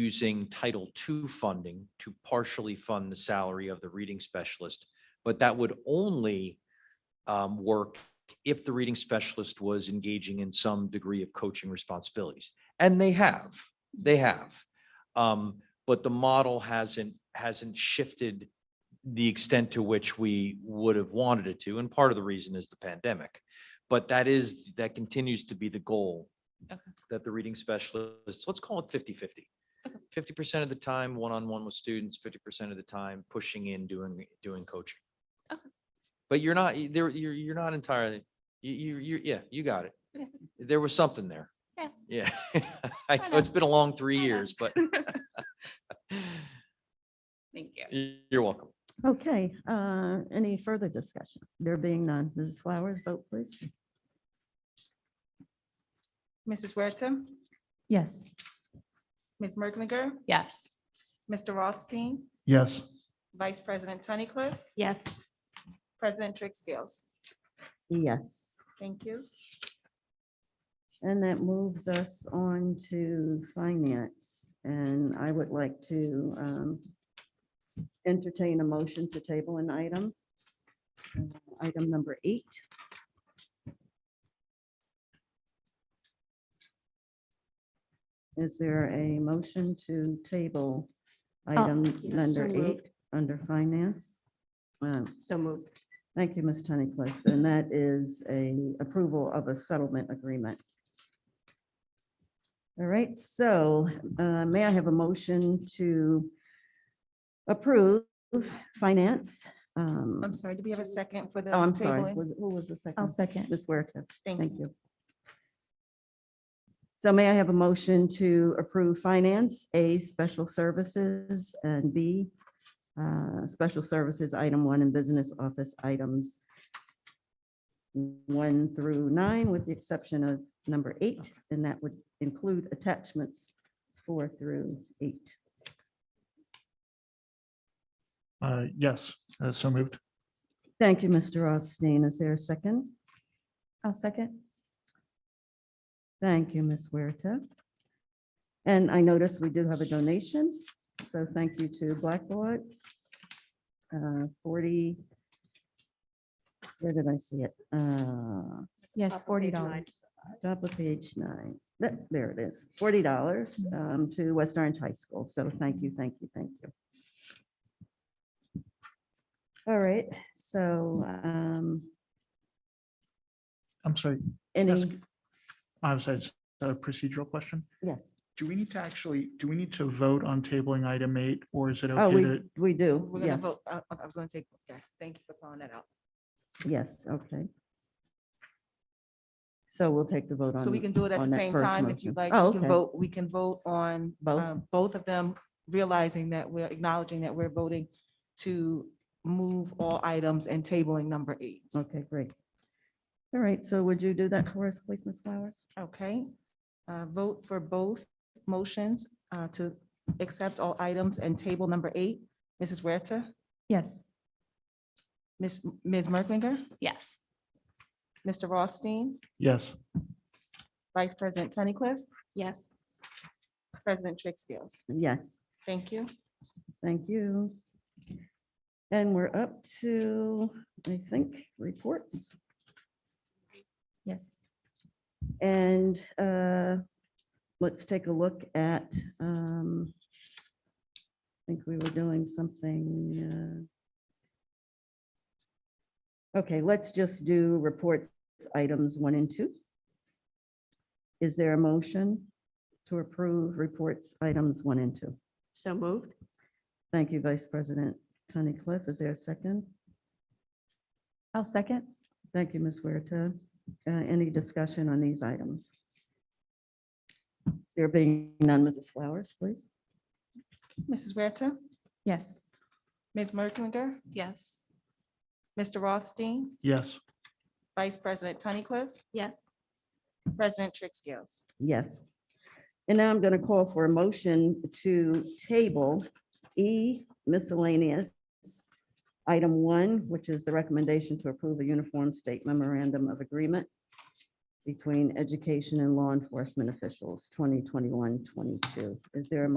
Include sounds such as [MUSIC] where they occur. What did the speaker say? using Title II funding to partially fund the salary of the reading specialist. But that would only um, work if the reading specialist was engaging in some degree of coaching responsibilities. And they have, they have. Um, But the model hasn't, hasn't shifted the extent to which we would have wanted it to. And part of the reason is the pandemic. But that is, that continues to be the goal Okay. that the reading specialists, let's call it 50/50. Okay. 50% of the time, one-on-one with students, 50% of the time pushing in, doing, doing coaching. Okay. But you're not, you- there, you're, you're not entirely, you, you, you, yeah, you got it. Yeah. There was something there. Yeah. Yeah. [LAUGHS] I I know it's been a long three I know. years, but [LAUGHS] Thank you. you're welcome. Okay, uh, any further discussion? There being none, Mrs. Flowers, vote please. Mrs. Huerta, Yes. Ms. Merklinger, Yes. Mr. Rothstein, Yes. Vice President Tunnicliff, Yes. President Drixfield. Yes, Thank you. and that moves us on to finance, and I would like to um, entertain a motion to table an item. Uh, Item number eight. Is there a motion to table Oh, item number eight under finance? Um, So moved. Thank you, Ms. Tunnicliff. And that is a approval of a settlement agreement. All right, so uh, may I have a motion to approve finance? Um, I'm sorry, do we have a second for the? Oh, I'm sorry. tabling? Was- Who was the 2nd second. Ms. Huerta, Thank you. thank you. So may I have a motion to approve finance, A, special services, and B, uh, special services, item one, and business office items one through nine, with the exception of number eight, and that would include attachments four through eight. Uh, yes, uh, so moved. Thank you, Mr. Rothstein. Is there a second? I'll second. Thank you, Ms. Huerta. And I notice we do have a donation, so thank you to Blackboard. Uh, Forty, where did I see it? Uh, Yes, forty dollars. Top of page nine, Th- there it is, forty dollars um, to West Orange High School. So thank you, thank you, thank you. All right, so um, I'm sorry. any, Ask- I'm sorry, it's a procedural question. yes, Do we need to actually, do we need to vote on tabling item eight or is it oh, okay we, to? we do, We're gonna yes, vote. I I- I was gonna take, yes, thank you for calling that out. yes, okay. So we'll take the vote on. So we can do it at on the that same first time if motion. you like. Oh, We can okay. vote, we can vote on Both? um, both of them, realizing that we're acknowledging that we're voting to move all items and tabling number eight. Okay, great. All right, so would you do that for us, please, Ms. Flowers? Okay, uh, vote for both motions uh, to accept all items and table number eight. Mrs. Huerta, Yes. Ms. Ms. Merklinger, Yes. Mr. Rothstein, Yes, Vice President Tunnicliff, Yes. President Trixfield. Yes, Thank you. thank you. And we're up to, I think, reports. Yes. And uh, let's take a look at, um, I think we were doing something. uh, Okay, let's just do reports, items one and two. Is there a motion to approve reports, items one and two? So moved. Thank you, Vice President Tony Cliff. Is there a second? I'll second. Thank you, Ms. Huerta. Uh, Any discussion on these items? There being none, Mrs. Flowers, please. Mrs. Huerta, Yes. Ms. Merklinger, Yes. Mr. Rothstein, yes, Vice President Tunnicliff, Yes. President Trixfield. Yes. And now I'm going to call for a motion to table E miscellaneous. Item one, which is the recommendation to approve a uniform state memorandum of agreement between education and law enforcement officials, 2021-22. Is there a